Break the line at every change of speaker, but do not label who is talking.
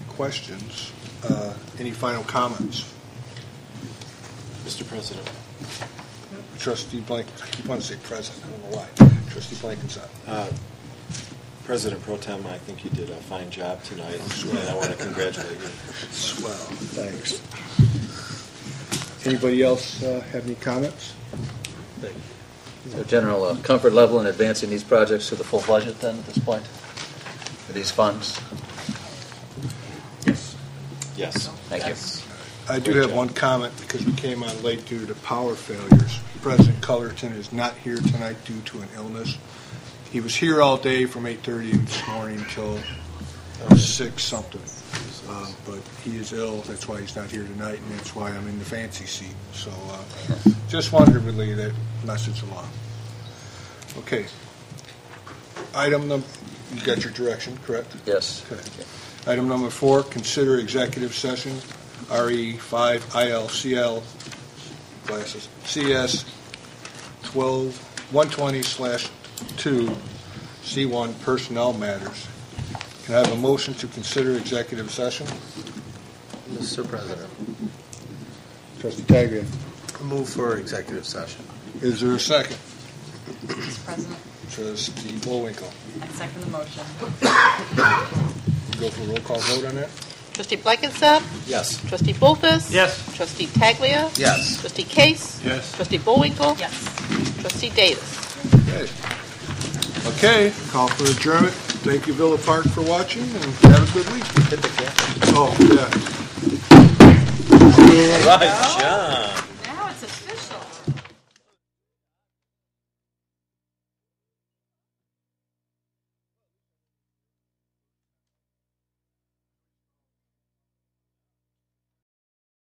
questions. Uh, Any final comments?
Mr. President,
Trustee Blank, I keep on saying present, I don't know why. Trustee Blankenship.
President Pro Tem, I think you did a fine job tonight, and I want to congratulate you.
Swell, thanks. Anybody else uh, have any comments?
So general uh, comfort level in advancing these projects to the full budget then at this point? For these funds?
Yes.
Thank you.
I do have one comment because we came on late due to power failures. President Cullerton is not here tonight due to an illness. He was here all day from 8:30 this morning until six something. Uh, But he is ill, that's why he's not here tonight, and that's why I'm in the fancy seat. So uh, just wanted to relay that message along. Okay. Item number, you got your direction, correct?
Yes.
Okay. Item number four, consider executive session, E RE 5 ILCL classes, CS 12, 120/2, C1 personnel matters. Can I have a motion to consider executive session?
Mr. President,
Trustee Taglia.
I move for executive session.
Is there a second?
Mr. President,
Trustee Bullwinkle.
I second the motion.
Go for a roll call vote on that?
Trustee Blankenship.
Yes.
Trustee Bolfus.
Yes.
Trustee Taglia.
Yes.
Trustee Case.
Yes.
Trustee Bullwinkle.
Yes.
Trustee Davis.
Okay. Okay, call for adjournment. Thank you, Villa Park, for watching, and have a good week. Oh, yeah.
Right, John.